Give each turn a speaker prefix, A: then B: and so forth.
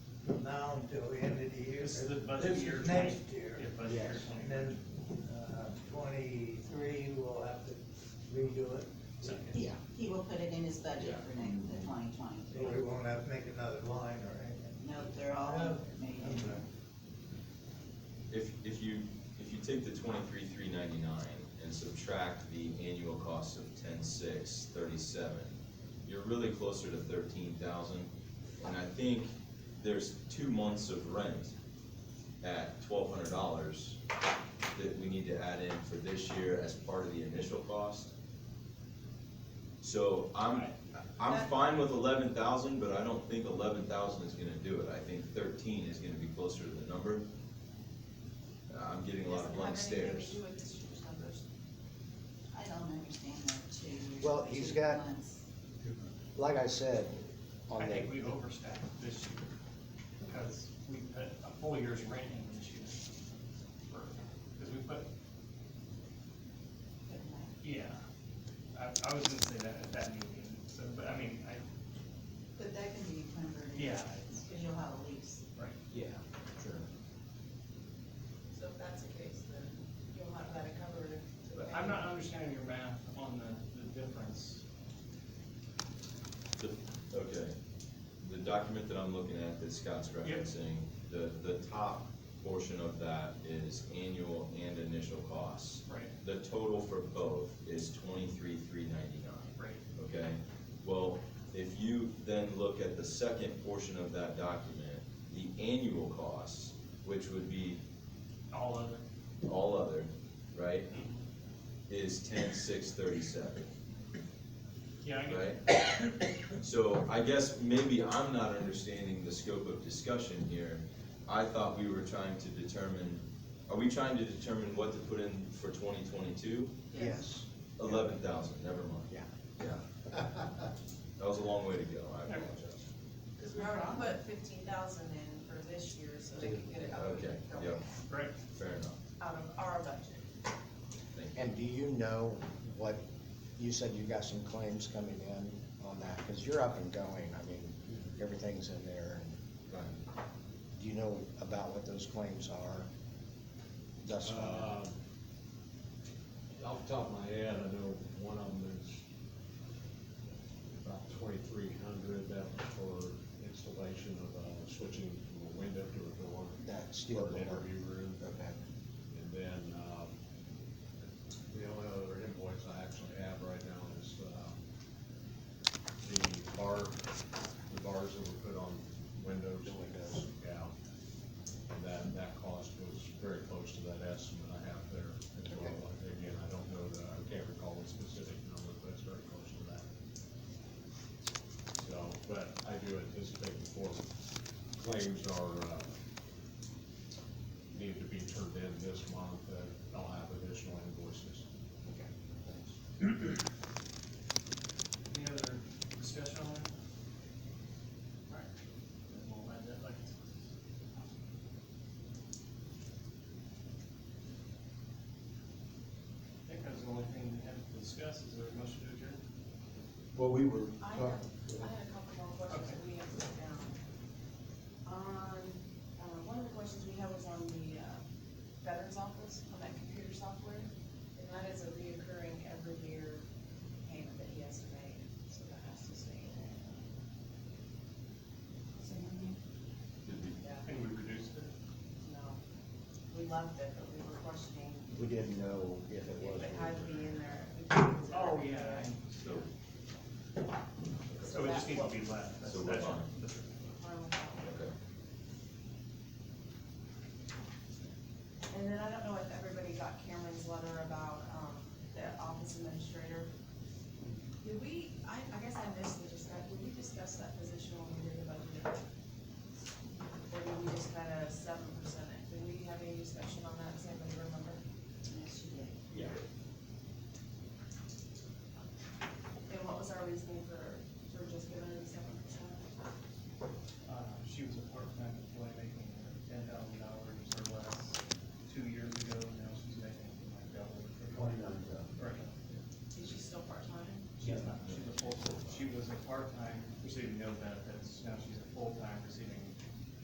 A: from now until the end of the year.
B: This is the budget
A: This is
B: year twenty.
A: next year.
B: Yeah, budget year
C: Yes.
A: And
B: twenty.
A: then, uh, twenty-three, we'll have to redo it,
B: So,
D: He, he will put it in his budget for next, the twenty
A: so
D: twenty.
A: we won't have to make another line or anything.
D: No, they're all made in there.
E: If, if you, if you take the twenty-three, three ninety-nine and subtract the annual cost of ten-six, thirty-seven, you're really closer to thirteen thousand. And I think there's two months of rent at twelve hundred dollars that we need to add in for this year as part of the initial cost. So I'm, I'm fine with eleven thousand, but I don't think eleven thousand is gonna do it. I think thirteen is gonna be closer to the number. Uh, I'm getting a lot of blank stares.
D: I don't understand that two years.
C: Well, he's
D: two
C: got-
D: months.
C: Like I said, on
B: I
C: the,
B: think we overstaffed this year, because we put a full year's rent in this year. Because we put, yeah, I, I was gonna say that at that meeting, so, but I mean, I,
D: But that can be converted.
B: Yeah.
D: Cause you'll have a lease.
B: right,
E: Yeah, sure.
F: So if that's the case, then you'll have that covered. if-
B: but I'm not understanding your math on the, the difference.
E: The- Okay, the document that I'm looking at that Scott's referencing, the, the top portion of that is annual and initial costs.
B: Right.
E: The total for both is twenty-three, three ninety-nine,
B: Right.
E: okay? Well, if you then look at the second portion of that document, the annual costs, which would be
B: All of it.
E: all other, right? Is ten, six, thirty-seven.
B: Yeah, I get it.
E: right? So I guess maybe I'm not understanding the scope of discussion here. I thought we were trying to determine, are we trying to determine what to put in for twenty twenty-two?
C: yes,
E: Eleven thousand, never mind.
C: Yeah.
E: Yeah. That was a long way to go, I apologize.
F: Cause we already put fifteen thousand in for this year, so they can get it out of,
E: Okay, yeah,
B: Right,
E: fair enough,
F: out of our budget.
E: thank you.
C: and do you know what, you said you got some claims coming in on that, cause you're up and going, I mean, everything's in there, and
E: Right.
C: do you know about what those claims are? Thus far,
G: Uh, Off the top of my head, I know one of them is about twenty-three hundred, that was for installation of, uh, switching from a window to a door.
C: That steel
G: for an
C: door.
G: Interview room,
C: okay,
G: and then, um, the only other invoice I actually have right now is, uh, the bar, the bars that were put on windows.
C: The windows.
G: Yeah. And that, that cost was very close to that estimate I have there as well. Again, I don't know the, I can't recall the specific number, but it's very close to that. So, but I do anticipate before claims are, uh, need to be turned in this month, that I'll have additional invoices.
C: okay, thanks.
B: any other discussion on that? Alright, then we'll add that later. I think that's the only thing we have to discuss, is there a motion to adjourn?
H: Well, we were
F: I have,
H: talking.
F: I had a couple more questions that we have written down. On, uh, one of the questions we had was on the, uh, veterans office, on that computer software, and that is a reoccurring every year payment that he has to make, so that has to stay in there.
D: So, mhm.
B: Did we,
F: Yeah.
B: I think we reduced it.
F: No, uh, we loved it, but we were questioning
C: We didn't know if it was.
F: if it had to be in there.
B: Oh,
E: So,
B: So it just needs to be left. That's-
E: So we're
B: that's-
E: fine.
B: that's-
E: okay.
F: And then I don't know if everybody got Cameron's letter about, um, the office administrator. Did we, I, I guess I missed the discussion, did we discuss that position when we did the budget?
B: Uh,